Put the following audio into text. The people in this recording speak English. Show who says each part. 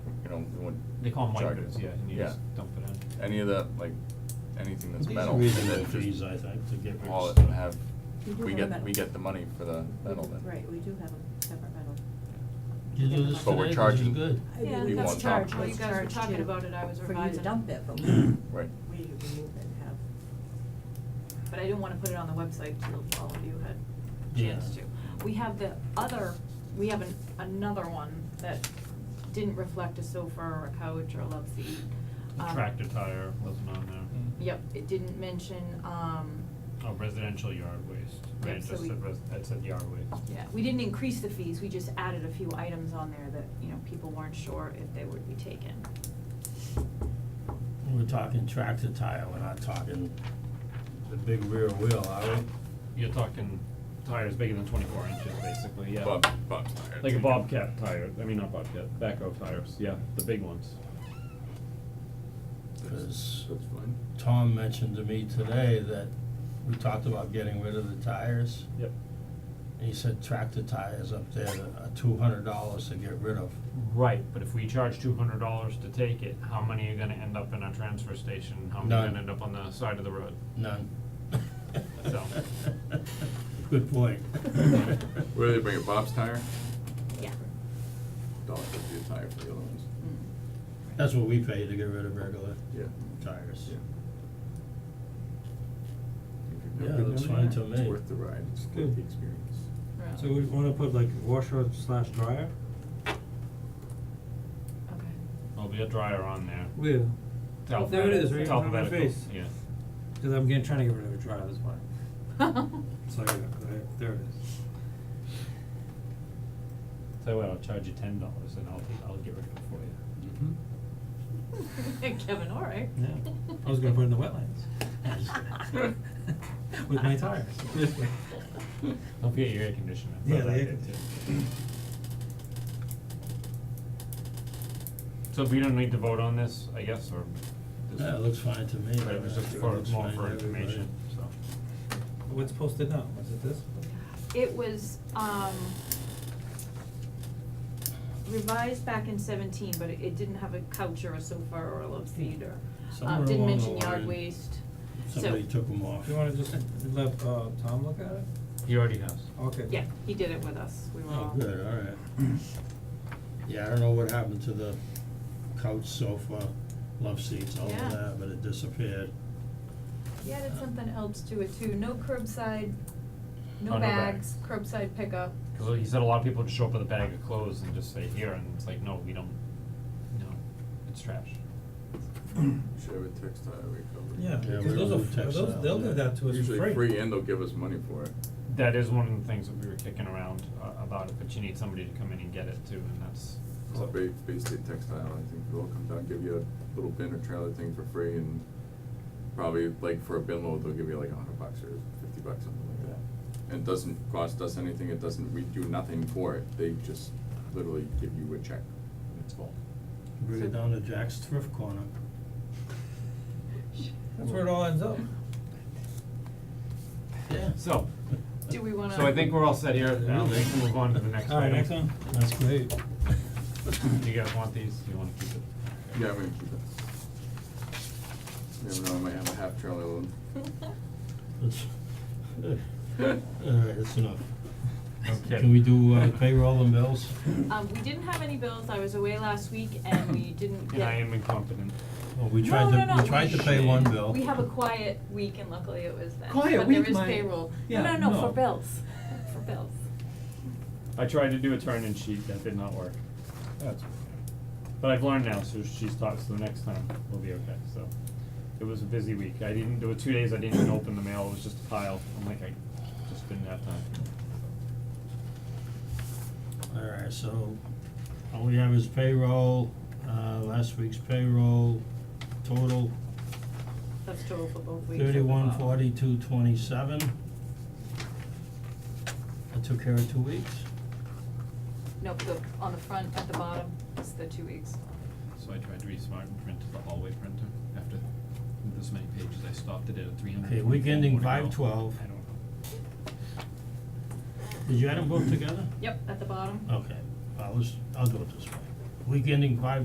Speaker 1: them, we wouldn't
Speaker 2: They call them
Speaker 1: charge
Speaker 2: micros,
Speaker 1: it.
Speaker 2: yeah, and you just dump it in.
Speaker 1: Any of that, like, anything that's
Speaker 3: These are
Speaker 1: metal, and
Speaker 3: reasonable
Speaker 1: then
Speaker 3: fees,
Speaker 1: just
Speaker 3: I think, to get rid of.
Speaker 1: haul it
Speaker 3: stuff.
Speaker 1: and have,
Speaker 4: We do
Speaker 1: we
Speaker 4: have a
Speaker 1: get,
Speaker 4: metal.
Speaker 1: we get the money for the metal then.
Speaker 4: Right, we do have a separate metal.
Speaker 3: You do this
Speaker 1: But we're
Speaker 3: today, which is
Speaker 1: charging-
Speaker 3: good.
Speaker 4: I
Speaker 5: Yeah,
Speaker 4: believe
Speaker 1: that's
Speaker 4: it's
Speaker 1: charged.
Speaker 4: charged,
Speaker 1: Well,
Speaker 4: it's
Speaker 5: you guys were
Speaker 4: charged
Speaker 5: talking
Speaker 4: to-
Speaker 5: about it, I was
Speaker 4: For you to
Speaker 5: revising.
Speaker 4: dump it, but we, we remove
Speaker 1: Right.
Speaker 4: it and have,
Speaker 5: But I didn't wanna put it on the website till all of you had a
Speaker 3: Yeah.
Speaker 5: chance to. We have the other, we have an, another one that didn't reflect a sofa or a couch or a love seat.
Speaker 3: The
Speaker 5: Um,
Speaker 3: Tractor tire wasn't on there.
Speaker 5: Yep, it didn't mention, um,
Speaker 3: Oh, residential yard waste,
Speaker 5: Yep,
Speaker 3: right, it
Speaker 5: so
Speaker 3: just
Speaker 5: we-
Speaker 3: said res- it said yard waste.
Speaker 5: yeah, we
Speaker 3: e-
Speaker 5: didn't increase the fees, we just added a few items on there that, you know, people weren't sure if they would be taken.
Speaker 6: We're talking tractor tire, we're not talking the big rear wheel, are we?
Speaker 3: You're talking tires bigger than twenty-four inches, basically, yeah.
Speaker 1: Bob, Bob's tired.
Speaker 3: Like a bobcat tire, I mean, not bobcat, backhoe tires, yeah, the big ones.
Speaker 6: Cause
Speaker 1: That's fine.
Speaker 6: Tom mentioned to me today that we talked about getting rid of the tires.
Speaker 3: Yep.
Speaker 6: And he said tractor tires up there that are two hundred dollars to get rid of.
Speaker 3: Right, but if we charge two hundred dollars to take it, how many are gonna end up in our transfer station, how many are
Speaker 6: None.
Speaker 3: gonna end up on the side of the road?
Speaker 6: None.
Speaker 3: So.
Speaker 6: Good point.
Speaker 1: Where do they bring it, Bob's tire?
Speaker 5: Yeah.
Speaker 1: Dollar fifty a tire for the other ones.
Speaker 3: Mm.
Speaker 6: That's what we pay to get rid of regular
Speaker 1: Yeah.
Speaker 6: tires.
Speaker 1: Yeah.
Speaker 6: Yeah, that's fine to me.
Speaker 1: It's worth the ride, it's worth
Speaker 7: Good.
Speaker 1: the experience.
Speaker 5: Right.
Speaker 7: So we wanna put like washer slash dryer?
Speaker 5: Okay,
Speaker 3: There'll be a dryer on there,
Speaker 7: Where?
Speaker 3: it's
Speaker 7: Oh, there it
Speaker 3: alphabetical,
Speaker 7: is, right in
Speaker 3: it's
Speaker 7: front of my
Speaker 3: alphabetical,
Speaker 7: face.
Speaker 3: yeah.
Speaker 7: Cause I'm getting, trying to get rid of a dryer, that's why. So there, you go, there- there it is.
Speaker 3: Tell you what, I'll charge you ten dollars and I'll, take- I'll get rid of it for you.
Speaker 1: Mm-hmm.
Speaker 5: Kevin, all right.
Speaker 7: Yeah, I was gonna put it in the wetlands. With my tires.
Speaker 3: Don't forget your air conditioner,
Speaker 7: Yeah,
Speaker 3: Put that
Speaker 7: the air
Speaker 3: in too. So we don't need to vote on this, I guess, or? does-
Speaker 6: Yeah, it looks fine to me.
Speaker 3: But it was just
Speaker 6: It
Speaker 3: for,
Speaker 6: looks
Speaker 3: more
Speaker 6: fine
Speaker 3: for
Speaker 6: to everybody.
Speaker 3: information, so.
Speaker 7: What's posted now, was it this?
Speaker 5: It was, um, revised back in seventeen, but it, it didn't have a couch or a sofa or a love seat or, um,
Speaker 6: Somewhere
Speaker 5: didn't
Speaker 6: along the
Speaker 5: mention yard
Speaker 6: line,
Speaker 5: waste, so.
Speaker 6: Somebody took them off.
Speaker 7: You wanna just let uh Tom look at it?
Speaker 3: He already has.
Speaker 7: Okay.
Speaker 5: Yeah, he did it with us, we were
Speaker 6: Oh,
Speaker 5: all.
Speaker 6: good, all right. Yeah, I don't know what happened to the couch, sofa, love seats, all of
Speaker 5: Yeah.
Speaker 6: that, but it disappeared.
Speaker 5: He added something else to it too, no curbside,
Speaker 3: Oh,
Speaker 5: no
Speaker 3: no
Speaker 5: bags,
Speaker 3: bags.
Speaker 5: curbside pickup.
Speaker 3: Cause he said a lot of people just show up with a bag of clothes and just say here, and it's like, no, we don't, no, it's trash.
Speaker 1: Share with textile recovery.
Speaker 7: Yeah,
Speaker 6: Yeah,
Speaker 7: because
Speaker 6: we
Speaker 7: those
Speaker 6: don't
Speaker 7: are,
Speaker 6: do
Speaker 7: fr- those,
Speaker 6: textiles,
Speaker 7: they'll
Speaker 6: yeah.
Speaker 7: give that to us for free.
Speaker 1: Usually free and they'll give us money for it.
Speaker 3: That is one of the things that we were kicking around uh about it, but you need somebody to come in and get it too, and that's.
Speaker 1: So Bay, Bay State Textile, I think they'll come down, give you a little bin or trailer thing for free and probably like for a bin load, they'll give you like a hundred bucks or fifty bucks, something like that. And it doesn't cost us anything, it doesn't, we do nothing for it, they just literally give you a check and it's full.
Speaker 6: Bring it down to Jack's Thrift Corner.
Speaker 7: That's where it all ends up.
Speaker 6: Yeah.
Speaker 3: So,
Speaker 5: Do we wanna?
Speaker 3: so I think we're all set here, now we can move on to the next one.
Speaker 7: Alright, next one.
Speaker 6: That's great.
Speaker 3: Do you guys want these, do you wanna keep it?
Speaker 1: Yeah, I'm gonna keep it. You never know, I might have a half trailer load.
Speaker 6: That's, uh, all right, that's enough.
Speaker 3: Okay.
Speaker 6: Can we do uh, payroll and bills?
Speaker 5: Um, we didn't have any bills, I was away last week and we didn't get.
Speaker 3: And I am incompetent.
Speaker 6: Well, Oh, we tried
Speaker 5: no,
Speaker 6: to,
Speaker 5: no, no,
Speaker 6: we tried to pay one bill.
Speaker 5: We have a quiet week and luckily it was that.
Speaker 7: Quiet
Speaker 5: but
Speaker 7: week,
Speaker 5: there is
Speaker 7: my-
Speaker 5: payroll.
Speaker 7: yeah,
Speaker 5: no, no,
Speaker 7: no.
Speaker 5: for bills. For bills.
Speaker 3: I tried to do a turn-in sheet, that did not work. That's okay. But I've learned now, so she's taught, so the next time we'll be okay, so. It was a busy week, I didn't, there were two days I didn't even open the mail, it was just a pile, I'm like, I just didn't have time.
Speaker 6: All right, so all we have is payroll, uh, last week's payroll, total
Speaker 5: That's total for both weeks.
Speaker 6: Thirty-one forty-two twenty-seven. I took care of two weeks.
Speaker 5: No, the, on the front, at the bottom, it's the two weeks.
Speaker 3: So I tried to be smart and print the hallway printer, after this many pages, I stopped it at three hundred
Speaker 6: Okay, week ending 5/12.
Speaker 3: I don't know.
Speaker 6: Did you add them both together?
Speaker 5: Yep, at the bottom.
Speaker 6: Okay, I'll just, I'll do it this way. Week ending five